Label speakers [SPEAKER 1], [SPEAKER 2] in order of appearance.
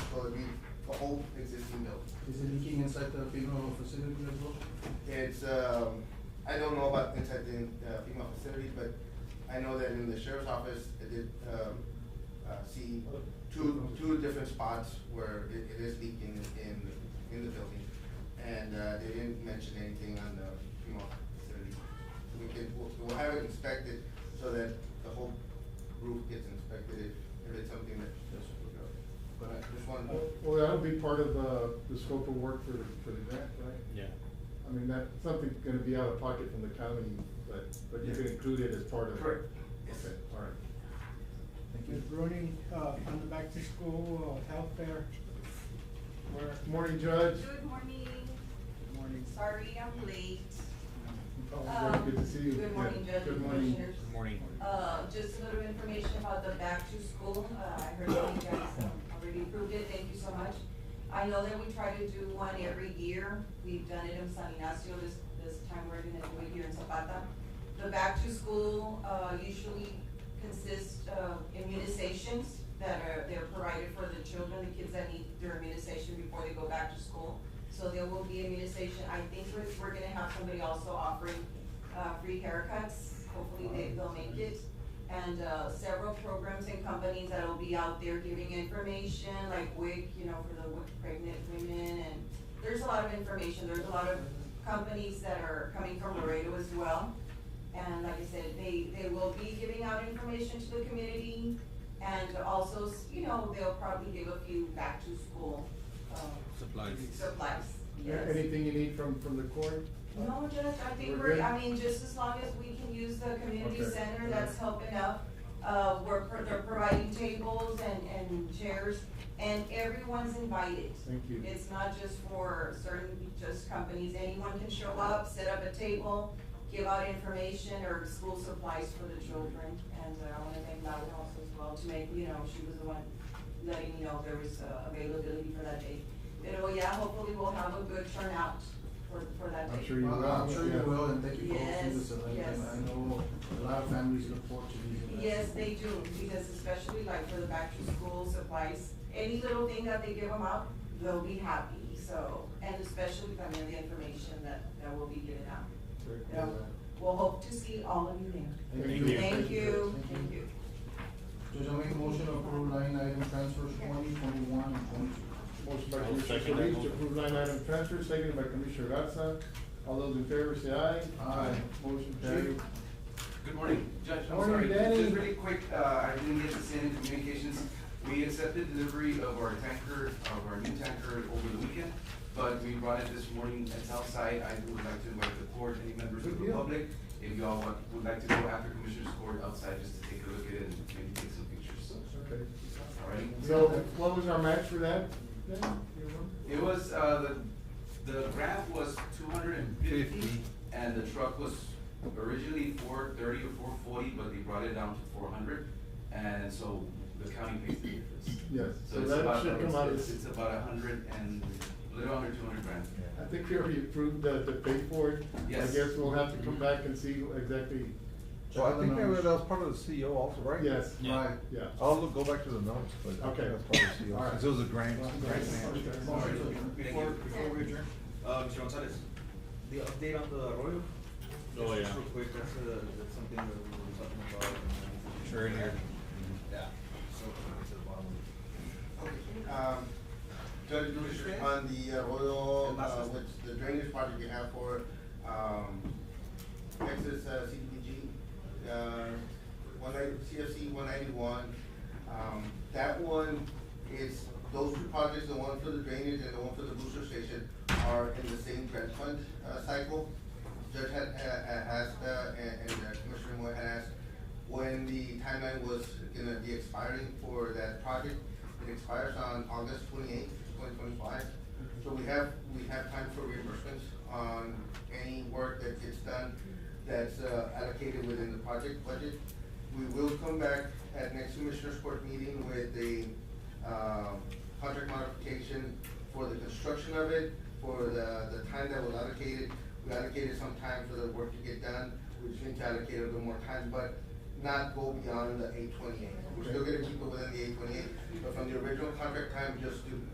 [SPEAKER 1] whole existing building.
[SPEAKER 2] Is it leaking inside the female facility as well?
[SPEAKER 1] It's, um, I don't know about inside the uh, female facility, but I know that in the sheriff's office, I did, um, uh, see two, two different spots where it, it is leaking in, in the building. And, uh, they didn't mention anything on the female facility. We can, we'll, we'll have it inspected so that the whole roof gets inspected if, if it's something that, but I just wanted to.
[SPEAKER 3] Well, that'll be part of uh, the scope of work for, for the grant, right?
[SPEAKER 4] Yeah.
[SPEAKER 3] I mean, that's something gonna be out of pocket from the county, but, but you can include it as part of.
[SPEAKER 1] Correct.
[SPEAKER 3] Okay, all right.
[SPEAKER 2] Thank you.
[SPEAKER 5] Ms. Bruning, uh, on the back to school, uh, health fair. Where,
[SPEAKER 3] Good Morning, Judge.
[SPEAKER 6] Good morning.
[SPEAKER 5] good morning.
[SPEAKER 6] Sorry I'm late. Um,
[SPEAKER 3] Judge, Good to see you.
[SPEAKER 6] Good morning,
[SPEAKER 3] Yeah,
[SPEAKER 6] Judge
[SPEAKER 3] Good
[SPEAKER 6] and
[SPEAKER 3] morning.
[SPEAKER 6] Commissioners.
[SPEAKER 4] Good morning.
[SPEAKER 6] Uh, just a little information about the back to school. Uh, I heard that you guys um, already approved it. Thank you so much. I know that we try to do one every year. We've done it in San Ignacio. This, this time we're gonna do it here in Zapata. The back to school, uh, usually consists of immunizations that are, they're provided for the children, the kids that need their immunization before they go back to school. So there will be immunization. I think we're, we're gonna have somebody also offering, uh, free haircuts. Hopefully they, they'll make it. And, uh, several programs and companies that will be out there giving information, like WIC, you know, for the w- pregnant women and there's a lot of information. There's a lot of companies that are coming from Laredo as well. And like I said, they, they will be giving out information to the community and also, s- you know, they'll probably give a few back to school, um,
[SPEAKER 4] Supplies.
[SPEAKER 6] supplies.
[SPEAKER 3] Yeah,
[SPEAKER 6] Yes.
[SPEAKER 3] Anything you need from, from the court?
[SPEAKER 6] No, Judge, I
[SPEAKER 3] We're
[SPEAKER 6] think we're, I
[SPEAKER 3] good?
[SPEAKER 6] mean, just as long as we can use the community
[SPEAKER 3] Okay.
[SPEAKER 6] center that's helping out. Uh, we're, pro- they're providing tables and, and chairs, and everyone's invited.
[SPEAKER 3] Thank you.
[SPEAKER 6] It's not just for certain, just companies, anyone can show up, set up a table, give out information or school supplies for the children. And uh, I wanna thank Laura also as well to make, you know, she was the one letting me know there was uh, availability for that day. But, oh yeah, hopefully we'll have a good turnout for, for that day.
[SPEAKER 3] I'm sure you
[SPEAKER 2] Well, I'm
[SPEAKER 3] will,
[SPEAKER 2] sure you
[SPEAKER 3] yeah.
[SPEAKER 2] will, and thank you for hosting this event,
[SPEAKER 6] Yes,
[SPEAKER 2] and I
[SPEAKER 6] yes.
[SPEAKER 2] know a lot of families look forward to these events.
[SPEAKER 6] Yes, they do, because especially like for the back to school supplies, any little thing that they give them out, they'll be happy, so, and especially from the information that, that will be given out.
[SPEAKER 3] Very
[SPEAKER 6] Yeah.
[SPEAKER 3] cool.
[SPEAKER 6] We'll hope to see all of you
[SPEAKER 2] Thank
[SPEAKER 6] there.
[SPEAKER 4] Thank
[SPEAKER 2] you.
[SPEAKER 4] you.
[SPEAKER 6] Thank you, thank you.
[SPEAKER 2] Judge, I make a motion to approve line item transfers twenty, twenty-one, and twenty-two.
[SPEAKER 3] Motion by
[SPEAKER 4] I'll
[SPEAKER 3] Commissioner
[SPEAKER 4] second that
[SPEAKER 3] Solis to
[SPEAKER 4] motion.
[SPEAKER 3] approve line item transfer, seconded by Commissioner Garza. All those in favor say aye.
[SPEAKER 2] Aye.
[SPEAKER 3] Motion carried.
[SPEAKER 7] Good morning, Judge, I'm sorry,
[SPEAKER 3] Morning, Danny.
[SPEAKER 7] just really quick, uh, I didn't get this in in communications. We accepted delivery of our tanker, of our new tanker over the weekend, but we brought it this morning at Southside. I would like to invite the court, any members of
[SPEAKER 3] Good
[SPEAKER 7] the
[SPEAKER 3] deal.
[SPEAKER 7] public, if y'all want- would like to go after Commissioner's Court outside, just to take a look at it and maybe take some pictures,
[SPEAKER 3] Okay.
[SPEAKER 7] all right?
[SPEAKER 3] So what was our match for that? then? Do you remember?
[SPEAKER 7] It was, uh, the, the grant was two hundred and fifty,
[SPEAKER 4] Fifty.
[SPEAKER 7] and the truck was originally four thirty or four forty, but they brought it down to four hundred, and so the county pays the difference.
[SPEAKER 3] Yes, so
[SPEAKER 7] So it's
[SPEAKER 3] that
[SPEAKER 7] about,
[SPEAKER 3] should come out
[SPEAKER 7] it's,
[SPEAKER 3] as-
[SPEAKER 7] it's about a hundred and, a little under two hundred grand.
[SPEAKER 3] I think we already approved the, the pay for it. I
[SPEAKER 7] Yes.
[SPEAKER 3] guess we'll have to come back and see exactly,
[SPEAKER 8] Well, I
[SPEAKER 2] Check
[SPEAKER 8] think
[SPEAKER 2] out the
[SPEAKER 8] that was- that
[SPEAKER 2] numbers.
[SPEAKER 8] was part of the CEO also, right?
[SPEAKER 3] yes,
[SPEAKER 4] Yeah.
[SPEAKER 2] Right.
[SPEAKER 3] yeah.
[SPEAKER 8] I'll look, go back to the notes, but I
[SPEAKER 3] Okay.
[SPEAKER 8] think that's part of the CEO,
[SPEAKER 3] All right.
[SPEAKER 8] because it was a grant, grant match.
[SPEAKER 3] Okay.
[SPEAKER 7] All right,
[SPEAKER 2] Thank
[SPEAKER 7] thank
[SPEAKER 9] Before,
[SPEAKER 7] you.
[SPEAKER 9] before we adjourn, uh, Mr. Gonzalez, the update on the Arroyo?
[SPEAKER 4] Oh,
[SPEAKER 9] Just
[SPEAKER 4] yeah.
[SPEAKER 9] Real quick, that's, uh, that's something that we were talking about. and-
[SPEAKER 4] Sure, in here.
[SPEAKER 9] Yeah, so, it's at the bottom.
[SPEAKER 1] Um, Judge Lewis, on the uh, Arroyo, uh, which the drainage project we have for, um, Texas uh, CDBG, uh, one ninety, CFC one ninety-one. Um, that one is, those two projects, the one for the drainage and the one for the booster station are in the same grant fund, uh, cycle. Judge had, uh, uh, asked, uh, and, and uh, Commissioner Moore had asked when the timeline was gonna be expiring for that project. It expires on August twenty-eighth, twenty twenty-five. So we have, we have time for reimbursements on any work that gets done that's uh, allocated within the project budget. We will come back at next Commissioners Court meeting with a, um, contract modification for the construction of it, for the, the time that was allocated. We allocated some time for the work to get done, we just need to allocate a little more time, but not go beyond the eight twenty-eight. We're still gonna keep it within the eight twenty-eight, but from the original contract time, just do